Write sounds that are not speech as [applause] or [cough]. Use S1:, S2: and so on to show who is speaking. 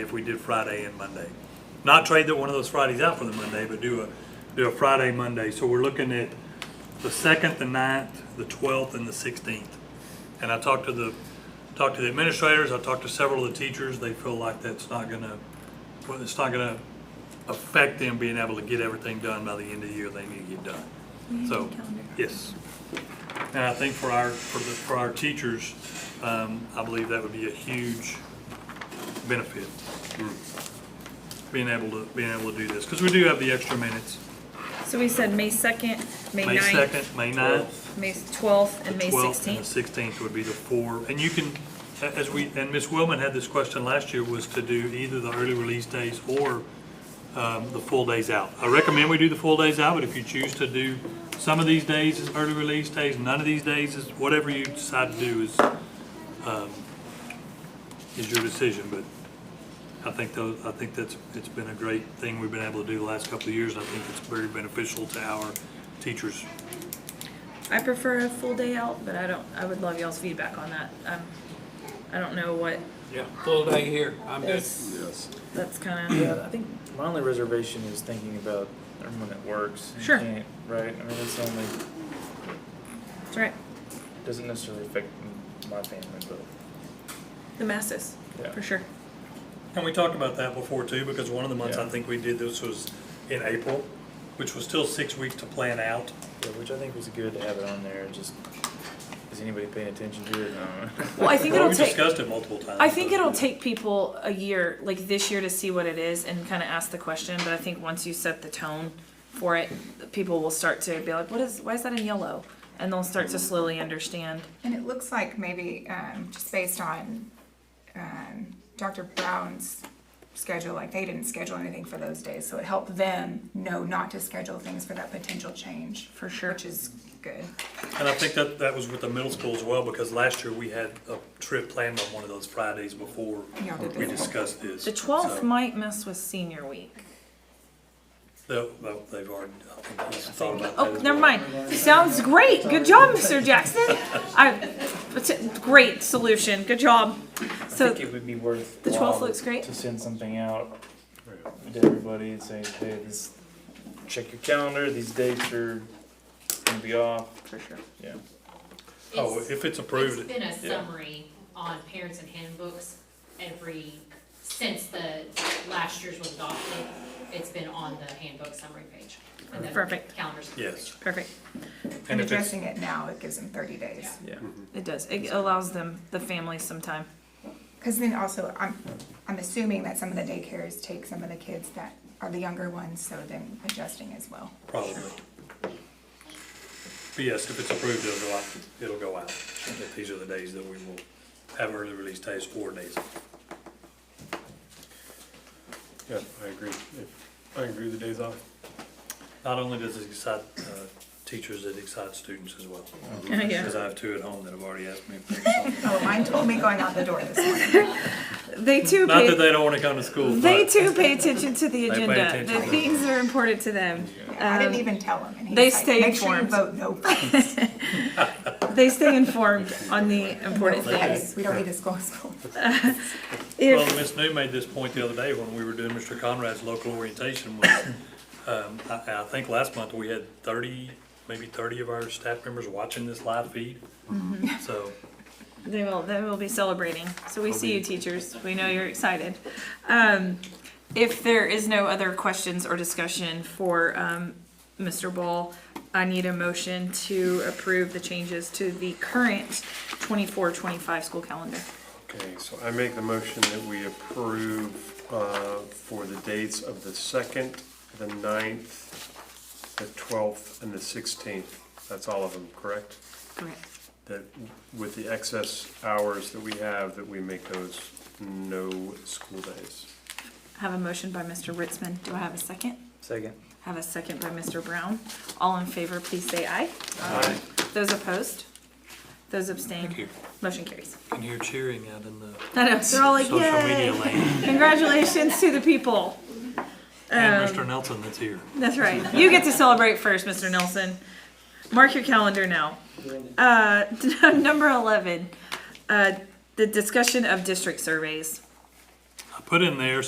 S1: if we did Friday and Monday. Not trade that one of those Fridays out for the Monday, but do a, do a Friday, Monday. So we're looking at the second, the ninth, the twelfth, and the sixteenth. And I talked to the, talked to the administrators, I talked to several of the teachers, they feel like that's not gonna, well, it's not gonna affect them being able to get everything done by the end of the year they need to get done. So, yes. And I think for our, for the, for our teachers, um, I believe that would be a huge benefit. Being able to, being able to do this, because we do have the extra minutes.
S2: So we said May second, May
S1: May
S2: ninth,
S1: second, May ninth.
S2: May twelfth, and May
S1: Twelfth and the
S2: sixteenth.
S1: sixteenth would be the four, and you can, a- as we, and Ms. Willman had this question last year, was to do either the early release days or um, the full days out. I recommend we do the full days out, but if you choose to do some of these days as early release days, none of these days is, whatever you decide to do is, um, is your decision, but I think those, I think that's, it's been a great thing we've been able to do the last couple of years, and I think it's very beneficial to our teachers.
S2: I prefer a full day out, but I don't, I would love y'all's feedback on that. Um, I don't know what
S3: Yeah, full day here, I'm good.
S2: is,
S4: Yes.
S2: that's kinda,
S5: Yeah, I think my only reservation is thinking about everyone that works. and
S2: Sure.
S5: can't, Right, I mean, it's only,
S2: that's right,
S5: doesn't necessarily affect my family, but,
S2: the masses,
S5: yeah.
S2: for sure.
S1: And we talked about that before too, because one of the months I
S5: Yeah.
S1: think we did this was in April, which was still six weeks to plan out.
S5: Yeah, which I think was good to have it on there, just, is anybody paying attention to it? No.
S2: Well, I think
S1: Well,
S2: it'll
S1: we
S2: take,
S1: discussed it multiple times.
S2: I think
S1: but-
S2: it'll take people a year, like this year, to see what it is and kinda ask the question, but I think once you set the tone for it, people will start to be like, what is, why is that in yellow? And they'll start to slowly understand.
S6: And it looks like maybe, um, just based on, um, Dr. Brown's schedule, like they didn't schedule anything for those days, so it helped them know not to schedule things for that potential change.
S2: For sure.
S6: Which is good.
S1: And I think that, that was with the middle school as well, because last year we had a trip planned on one of those Fridays before
S6: Yeah, we did.
S1: we discussed this.
S2: The twelfth
S1: So,
S2: might mess with senior week.
S1: they'll- they'll- They've already, I think he's thought about that
S2: Oh,
S1: as
S2: never
S1: well.
S2: mind. Sounds great. Good job, Mr. Jackson. I, it's a great solution. Good job.
S5: [laughs] I
S2: So
S5: think it would be worth.
S2: the 12th looks great.
S5: To send something out to everybody and say, hey, this, check your calendar, these dates are gonna be off,
S2: for sure.
S5: yeah.
S1: Oh, if it's
S7: It's
S1: approved,
S7: been a
S5: yeah.
S7: summary on parents and handbooks every, since the last year's was adopted. It's been on the handbook summary page. and the
S2: Perfect.
S7: Calendar. summary page.
S1: yes.
S2: Perfect.
S6: And
S1: And if it's,
S6: addressing it now, it gives them thirty days.
S2: It does. It allows them the families some time.
S6: Cause then also, I'm, I'm assuming that some of the daycares take some of the kids that are the younger ones, so then adjusting as well.
S1: probably. But yes, if it's approved, it'll go out, it'll go out. If These are the days that we will have early release days or days.
S4: Yeah, I agree. I agree with the days off.
S1: Not only does it excite uh, teachers, it excites students as well.
S2: [laughs] yeah.
S1: Because I have two at home that have already asked
S2: [laughs]
S1: me. if they want-
S6: Oh, mine told me going out the door this morning.
S2: They too
S1: Not that
S2: pay,
S1: they don't want to come to school,
S2: they
S1: but
S2: too pay attention to the
S1: They pay
S2: agenda. The
S1: attention.
S2: things that are important to them.
S6: I didn't
S2: Um,
S6: even tell him. and he
S2: they
S6: was like,
S2: stay
S6: Make sure you
S2: informed.
S6: vote no.
S2: [laughs] They stay informed on the important things.
S6: Yes, we don't need to school school.
S2: If-
S1: well, Miss New made this point the other day when we were doing Mr. Conrad's local orientation. was, um, I I think last month we had 30, maybe 30 of our staff members watching this live feed.
S2: Mm-hmm.
S1: So
S2: They will. They will be celebrating. So we see you, teachers. We know you're excited. Um, if there is no other questions or discussion for um, Mr. Ball, I need a motion to approve the changes to the current 24-25 school calendar.
S4: Okay, so I make the motion that we approve uh, for the dates of the second, the ninth, the twelfth, and the sixteenth. That's all of them, correct?
S2: Correct.
S4: That with the excess hours that we have, that we make those no school days.
S2: I have a motion by Mr. Ritzman. Do I have a second?
S5: Second.
S2: I have a second by Mr. Brown. All in favor, please say aye.
S4: Aye.
S2: Those opposed? Those abstained?
S1: you.
S2: Motion carries. [laughs]
S1: And you're cheering out in the
S2: I know, they're all like,
S1: social media
S2: Uh, yay!
S1: land.
S2: Congratulations to the people. Um,
S1: And Mr. Nelson that's here.
S2: That's right. You get to celebrate first, Mr. Nelson. Mark your calendar now. Uh, [laughs] number 11, uh, the discussion of district surveys.
S1: I put in there